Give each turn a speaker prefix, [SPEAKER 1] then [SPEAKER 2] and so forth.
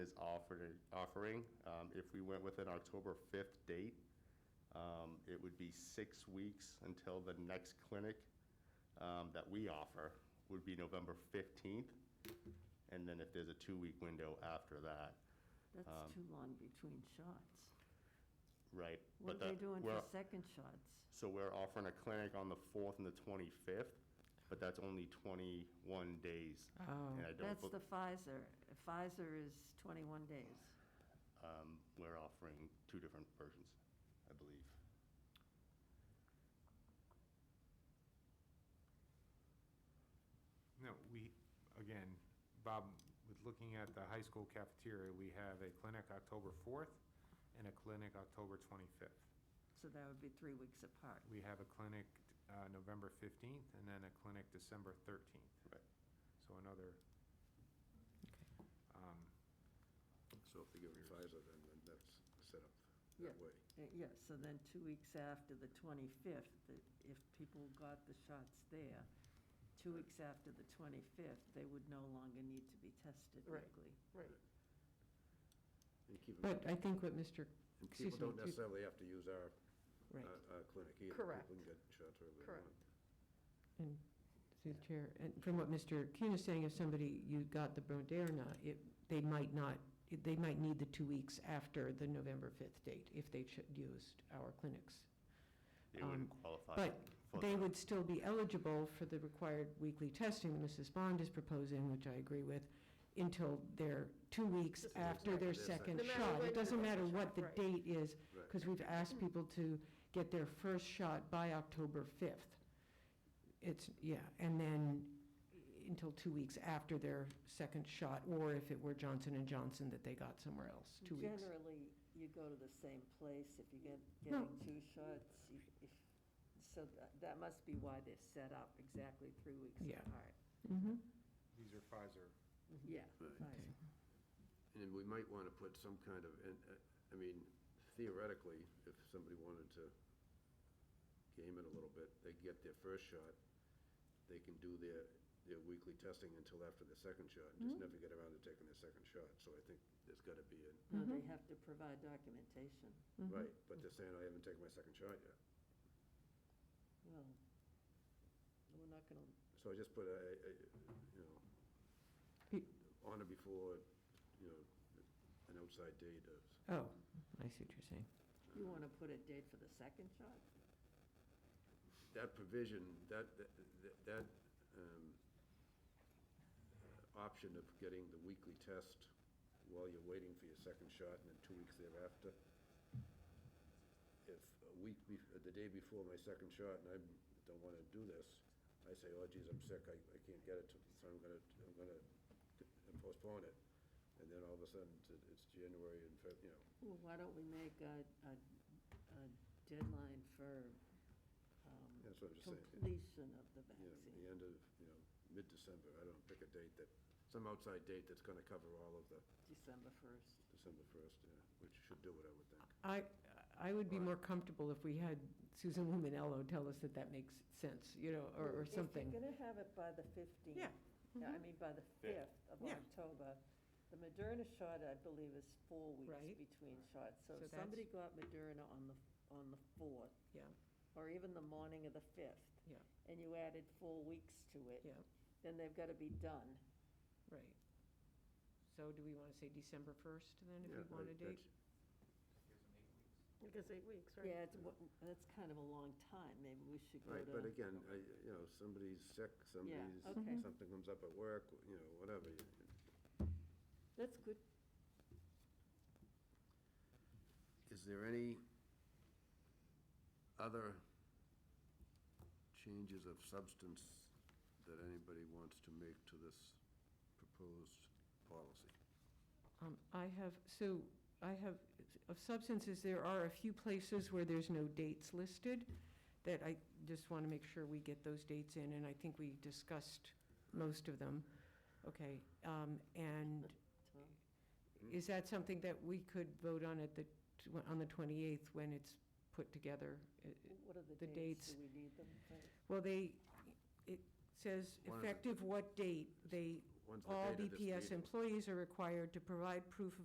[SPEAKER 1] is offered, offering. Um, If we went with an October 5th date, um, it would be six weeks until the next clinic um, that we offer would be November 15th. And then if there's a two-week window after that, Um,
[SPEAKER 2] That's too long between shots.
[SPEAKER 1] right?
[SPEAKER 2] What are
[SPEAKER 1] But
[SPEAKER 2] they
[SPEAKER 1] that-
[SPEAKER 2] doing for
[SPEAKER 1] we're-
[SPEAKER 2] second shots?
[SPEAKER 1] So we're offering a clinic on the 4th and the 25th, but that's only 21 days. And I don't
[SPEAKER 2] Oh, That's
[SPEAKER 1] bel-
[SPEAKER 2] the Pfizer. Pfizer is 21 days.
[SPEAKER 1] Um, We're offering two different versions, I believe.
[SPEAKER 3] No, we, again, Bob, with looking at the high school cafeteria, we have a clinic October 4th and a clinic October 25th.
[SPEAKER 2] So that would be three weeks apart.
[SPEAKER 3] We have a clinic uh, November 15th and then a clinic December 13th.
[SPEAKER 1] Right.
[SPEAKER 3] So another, um,
[SPEAKER 4] So if they give them Pfizer, then then that's set up
[SPEAKER 2] Yeah.
[SPEAKER 4] that way.
[SPEAKER 2] Uh, Yes, so then two weeks after the 25th, that if people got the shots there, two weeks after the 25th, they would no longer need to be tested
[SPEAKER 5] Right.
[SPEAKER 2] weekly.
[SPEAKER 5] Right.
[SPEAKER 4] And keep 'em-
[SPEAKER 5] But I think what Mr.,
[SPEAKER 4] and
[SPEAKER 5] excuse me.
[SPEAKER 4] people don't
[SPEAKER 5] peop-
[SPEAKER 4] necessarily have to use our,
[SPEAKER 5] Right,
[SPEAKER 4] our our clinic either.
[SPEAKER 5] Correct.
[SPEAKER 4] People can get shots wherever they
[SPEAKER 5] Correct.
[SPEAKER 4] want.
[SPEAKER 5] and through the chair, and from what Mr. Kuhn is saying, if somebody, you got the Moderna, it, they might not, they might need the two weeks after the November 5th date if they ch- used our clinics.
[SPEAKER 1] They wouldn't
[SPEAKER 5] Um,
[SPEAKER 1] qualify.
[SPEAKER 5] But
[SPEAKER 1] for
[SPEAKER 5] they
[SPEAKER 1] the-
[SPEAKER 5] would still be eligible for the required weekly testing that Mrs. Bond is proposing, which I agree with, until their, two weeks
[SPEAKER 4] This is
[SPEAKER 5] after their
[SPEAKER 4] exactly
[SPEAKER 5] second
[SPEAKER 4] the second. No
[SPEAKER 5] shot.
[SPEAKER 4] matter
[SPEAKER 5] It
[SPEAKER 4] when
[SPEAKER 5] doesn't
[SPEAKER 4] the
[SPEAKER 5] matter
[SPEAKER 4] second
[SPEAKER 5] what
[SPEAKER 4] shot,
[SPEAKER 5] the
[SPEAKER 4] right.
[SPEAKER 5] date is,
[SPEAKER 4] Right.
[SPEAKER 5] because we've asked people to get their first shot by October 5th. It's, yeah, and then until two weeks after their second shot, or if it were Johnson and Johnson that they got somewhere else, two weeks.
[SPEAKER 2] Generally, you go to the same place if you get,
[SPEAKER 5] No.
[SPEAKER 2] getting two shots. you- if- So tha- that must be why they're set up exactly three weeks
[SPEAKER 5] Yeah.
[SPEAKER 2] apart.
[SPEAKER 5] Mhm.
[SPEAKER 3] these are Pfizer.
[SPEAKER 2] Yeah.
[SPEAKER 4] Mm-hmm. Right.
[SPEAKER 2] right.
[SPEAKER 5] Mm-hmm.
[SPEAKER 4] And we might want to put some kind of, and, uh, I mean, theoretically, if somebody wanted to game it a little bit, they get their first shot, they can do their, their weekly testing until after the second shot, and just never get around to taking their second shot. So I think there's got to be a,
[SPEAKER 2] No, they have to provide documentation.
[SPEAKER 5] Mm-hmm.
[SPEAKER 4] right, but they're saying, I haven't taken my second shot yet.
[SPEAKER 2] Well, we're not going to,
[SPEAKER 4] So I just put a, a- you know,
[SPEAKER 5] He-
[SPEAKER 4] on or before, you know, an outside date of,
[SPEAKER 5] Oh, I see what you're saying.
[SPEAKER 2] you want to put a date for the second shot?
[SPEAKER 4] that provision, that, that, that um, option of getting the weekly test while you're waiting for your second shot and then two weeks thereafter. If a week, bef- the day before my second shot and I don't want to do this, I say, oh geez, I'm sick, I, I can't get it, to- so I'm gonna, I'm gonna postpone it. And then all of a sudden, it's- it's January and, Feb- you know,
[SPEAKER 2] Well, why don't we make a, a, a deadline for um,
[SPEAKER 4] That's what I'm just saying.
[SPEAKER 2] completion of the
[SPEAKER 4] you know, the
[SPEAKER 2] vaccine?
[SPEAKER 4] end of, you know, mid-December, I don't know, pick a date that, some outside date that's gonna cover all of the
[SPEAKER 2] December 1st.
[SPEAKER 4] December first, yeah, which should do it, I would think.
[SPEAKER 5] I, I would be more comfortable if we had Susan Luminello tell us that that makes sense, you know, or, or
[SPEAKER 2] If you're
[SPEAKER 5] something. Mm-hmm.
[SPEAKER 2] going to have it by the 15th.
[SPEAKER 5] Yeah.
[SPEAKER 2] I mean, by the 5th of
[SPEAKER 5] Yeah.
[SPEAKER 2] October. The Moderna shot, I believe, is four weeks
[SPEAKER 5] Right.
[SPEAKER 2] between shots. So
[SPEAKER 5] So
[SPEAKER 2] if
[SPEAKER 5] that's-
[SPEAKER 2] somebody got Moderna on the, on the 4th,
[SPEAKER 5] Yeah,
[SPEAKER 2] or even the morning of the 5th,
[SPEAKER 5] yeah,
[SPEAKER 2] and you added four weeks to it.
[SPEAKER 5] yeah,
[SPEAKER 2] Then they've got to be done.
[SPEAKER 5] right. So do we want to say December 1st then, if
[SPEAKER 4] Yeah,
[SPEAKER 5] we want
[SPEAKER 4] I-
[SPEAKER 5] a date?
[SPEAKER 6] Because eight weeks, right?
[SPEAKER 2] Yeah, it's, wa- that's kind of a long time, maybe we should
[SPEAKER 4] that's-
[SPEAKER 2] go
[SPEAKER 4] Right,
[SPEAKER 2] to,
[SPEAKER 4] but again, I, you know, somebody's sick, somebody's,
[SPEAKER 2] okay.
[SPEAKER 4] something comes up at work, you know, whatever. you-
[SPEAKER 2] that's good,
[SPEAKER 4] Is there any other changes of substance that anybody wants to make to this proposed policy?
[SPEAKER 5] Um, I have, so, I have, of substances, there are a few places where there's no dates listed, that I just want to make sure we get those dates in, and I think we discussed most of them. Okay, um, and
[SPEAKER 2] Tom.
[SPEAKER 5] Is that something that we could vote on at the, tw- on the 28th when it's put together? I- I-
[SPEAKER 2] What are the
[SPEAKER 5] The
[SPEAKER 2] dates?
[SPEAKER 5] dates.
[SPEAKER 2] Do we need them?
[SPEAKER 5] Well, they, it says
[SPEAKER 4] One of the-
[SPEAKER 5] effective what date? They,
[SPEAKER 4] When's the
[SPEAKER 5] all
[SPEAKER 4] date of this
[SPEAKER 5] BPS
[SPEAKER 4] meeting?
[SPEAKER 5] employees are required to provide proof of